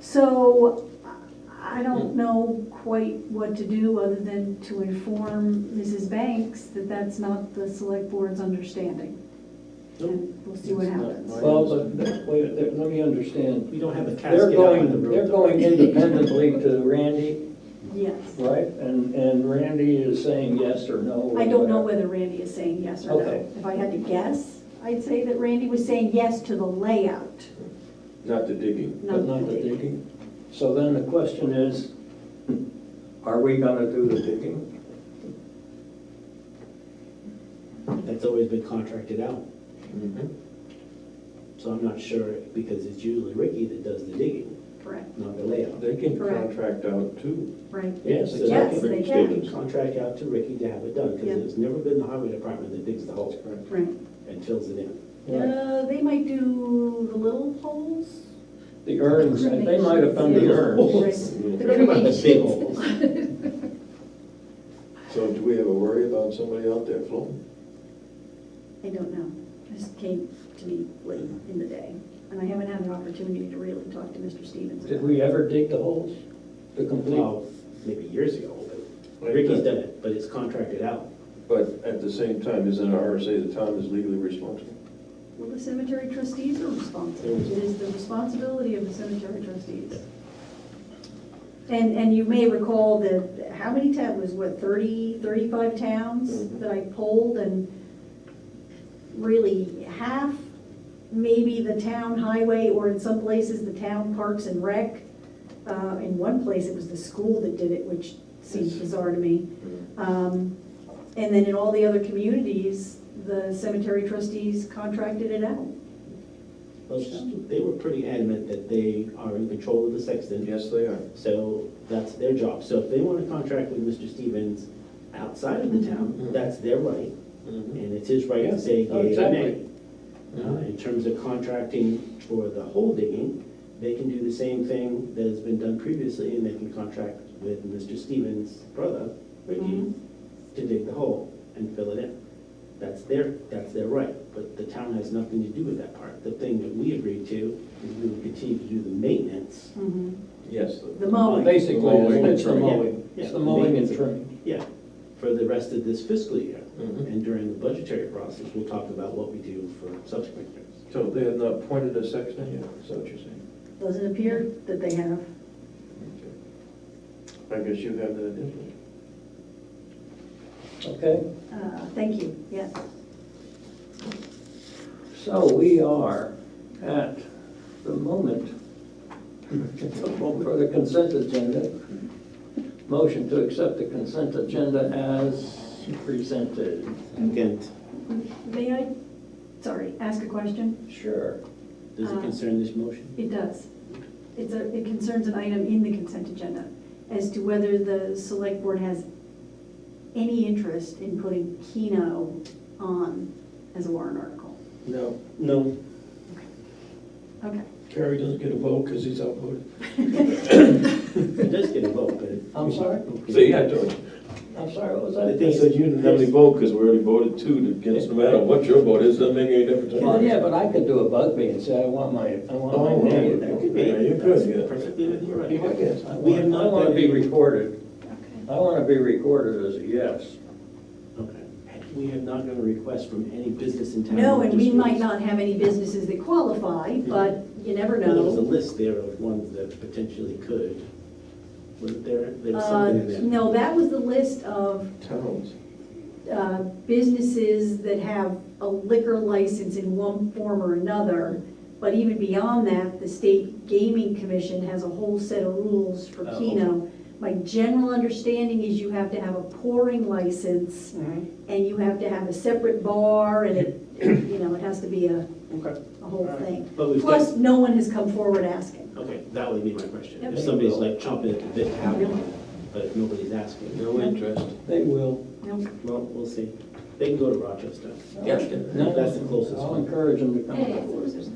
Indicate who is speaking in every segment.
Speaker 1: So I
Speaker 2: Hmm.
Speaker 1: don't know quite what to do other than to inform Mrs. Banks that that's not the select board's understanding. And we'll see what
Speaker 3: It's not
Speaker 1: happens.
Speaker 3: my-
Speaker 2: Well, but, wait, there- let me understand.
Speaker 3: We don't have a
Speaker 2: They're
Speaker 3: casket out in the
Speaker 2: going,
Speaker 3: road.
Speaker 2: they're going independently to Randy,
Speaker 1: Yes.
Speaker 2: right? And, and Randy is saying yes or no. or
Speaker 1: I don't know
Speaker 2: whatever.
Speaker 1: whether Randy is saying yes or
Speaker 2: Okay.
Speaker 1: no. If I had to guess, I'd say that Randy was saying yes to the layout,
Speaker 4: Not the digging.
Speaker 1: not
Speaker 2: But
Speaker 1: the
Speaker 2: not the
Speaker 1: digging.
Speaker 2: digging. So then the question is, are we gonna do the digging?
Speaker 3: That's always been contracted out,
Speaker 4: Mm-hmm.
Speaker 3: so I'm not sure, because it's usually Ricky that does the digging,
Speaker 1: Correct,
Speaker 3: not the layout.
Speaker 4: They can
Speaker 1: Correct.
Speaker 4: contract out too.
Speaker 1: right.
Speaker 2: Yes,
Speaker 3: So
Speaker 2: it's
Speaker 3: that
Speaker 1: Yes,
Speaker 3: can
Speaker 1: they
Speaker 4: Rick
Speaker 1: can,
Speaker 4: Stevens.
Speaker 3: be Contract out to Ricky to have it done,
Speaker 1: Yeah.
Speaker 3: because it's never been the highway department that digs the hole
Speaker 1: right.
Speaker 3: and fills it in.
Speaker 2: Right.
Speaker 1: Uh, they might do the little holes.
Speaker 2: The urns, and they might have done the urns.
Speaker 1: Right.
Speaker 4: So
Speaker 3: Forget about the big holes.
Speaker 4: do we have a worry about somebody out there floating?
Speaker 1: I don't know. This came to me late in the day, and I haven't had an opportunity to really talk to Mr. Stevens.
Speaker 2: Did
Speaker 1: about
Speaker 2: we ever dig the holes to complete?
Speaker 3: Well, maybe years ago, but Ricky's done it, but it's contracted out.
Speaker 4: But at the same time, isn't our RSA, the town is legally responsible?
Speaker 1: it. Well, the cemetery trustees are responsible. It is the responsibility of the cemetery trustees. And, and you may recall that, how many towns, was what, 30, 35 towns that I polled? And really, half, maybe the town highway, or in some places, the town parks and rec. Uh, In one place, it was the school that did it, which seems bizarre to me.
Speaker 4: Mm-hmm.
Speaker 1: Um, And then in all the other communities, the cemetery trustees contracted it out.
Speaker 3: Well, They were pretty adamant that they are in control of the sexton.
Speaker 4: Yes, they are.
Speaker 3: So that's their job. So if they want to contract with Mr. Stevens outside of the town,
Speaker 4: Mhm.
Speaker 3: that's their right,
Speaker 4: Mhm.
Speaker 3: and it's his right
Speaker 2: Yeah,
Speaker 3: to say
Speaker 2: oh,
Speaker 3: yea or nay.
Speaker 2: exactly.
Speaker 3: Uh, In terms of contracting for the hole digging, they can do the same thing that has been done previously, and they can contract with Mr. Stevens' brother, Ricky,
Speaker 1: Mhm.
Speaker 3: to dig the hole and fill it in. That's their, that's their right, but the town has nothing to do with that part. The thing that we agreed to is we would continue to do the maintenance
Speaker 4: Yes.
Speaker 1: The mowing.
Speaker 2: Basically,
Speaker 4: Mowing.
Speaker 2: it's the mowing,
Speaker 3: Yeah.
Speaker 2: it's the mowing and trimming.
Speaker 3: Yeah, for the rest of this fiscal year.
Speaker 4: Mhm.
Speaker 3: And during the budgetary process, we'll talk about what we do for subsequent years.
Speaker 4: So they have not pointed a sexton yet, is that what you're saying?
Speaker 1: Doesn't appear that they have.
Speaker 4: Okay. I guess you have that info.
Speaker 2: Okay,
Speaker 1: Uh, Thank you, yes.
Speaker 2: so we are at the moment for the consent agenda. Motion to accept the consent agenda as presented.
Speaker 3: Again,
Speaker 1: May I, sorry, ask a question?
Speaker 2: Sure.
Speaker 3: does it
Speaker 1: Uh,
Speaker 3: concern this motion?
Speaker 1: It does. It's a, it concerns an item in the consent agenda as to whether the select board has any interest in putting Keno on as a warrant article.
Speaker 4: No,
Speaker 3: No.
Speaker 1: Okay.
Speaker 4: Terry doesn't get a vote because he's outvoted.
Speaker 3: It does get a vote, but. it-
Speaker 2: I'm sorry?
Speaker 4: See, I told you.
Speaker 2: I'm sorry, what was
Speaker 3: The
Speaker 2: that?
Speaker 3: thing is,
Speaker 4: You didn't have any vote because we already voted two against, no matter what your vote is, doesn't make any difference.
Speaker 2: Well, yeah, but I could do a Bugby and say, I want my, I want my
Speaker 3: Yeah,
Speaker 2: name.
Speaker 3: that could be.
Speaker 4: Yeah, you could,
Speaker 3: That's
Speaker 4: yeah.
Speaker 3: Perfectly within your right.
Speaker 4: Yeah, I guess.
Speaker 2: I
Speaker 3: We have
Speaker 2: want, I
Speaker 3: not
Speaker 2: want to
Speaker 3: done
Speaker 2: be
Speaker 3: any.
Speaker 2: recorded,
Speaker 1: Okay.
Speaker 2: I want to be recorded as a yes.
Speaker 3: Okay. We have not got a request from any business in town.
Speaker 1: No, and we
Speaker 3: Just-
Speaker 1: might not have any businesses that qualify, but you never
Speaker 3: Well, There was
Speaker 1: know.
Speaker 3: a list there of ones that potentially could. Wasn't there, there was
Speaker 1: Uh,
Speaker 3: something in there?
Speaker 1: No, that was the list of
Speaker 4: Towns.
Speaker 1: uh, businesses that have a liquor license in one form or another. But even beyond that, the State Gaming Commission has a whole set of rules for
Speaker 2: Oh.
Speaker 1: Keno. My general understanding is you have to have a pouring license and you have to have a separate bar and it, you know, it has to be a,
Speaker 3: Okay.
Speaker 1: a whole thing.
Speaker 3: But we've got-
Speaker 1: Plus, no one has come forward asking.
Speaker 3: Okay, that would be my question.
Speaker 1: Yep.
Speaker 3: If somebody's like chomping at the bit to have one, but if nobody's asking.
Speaker 4: No interest.
Speaker 2: They will.
Speaker 1: Nope.
Speaker 3: Well, we'll see. They can go to Rochester.
Speaker 2: Yeah.
Speaker 3: That's the closest
Speaker 2: I'll
Speaker 3: one.
Speaker 2: encourage them to
Speaker 5: Yeah, yeah,
Speaker 2: come.
Speaker 5: it's Dover.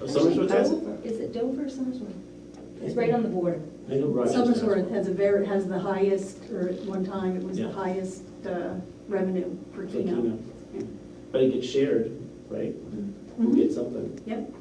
Speaker 3: Oh, Somersworth has it?
Speaker 5: Dover. Is it Dover or Somersworth? It's right on the border.
Speaker 3: I know Rochester has
Speaker 1: Summersworth
Speaker 3: one.
Speaker 1: has a very, has the highest, or at one time, it was the
Speaker 3: Yeah.
Speaker 1: highest uh, revenue per
Speaker 3: For Keno.
Speaker 1: keno.
Speaker 3: But it gets shared, right?
Speaker 1: Mhm.
Speaker 5: Mm-hmm.
Speaker 3: Who gets something?
Speaker 1: Yep,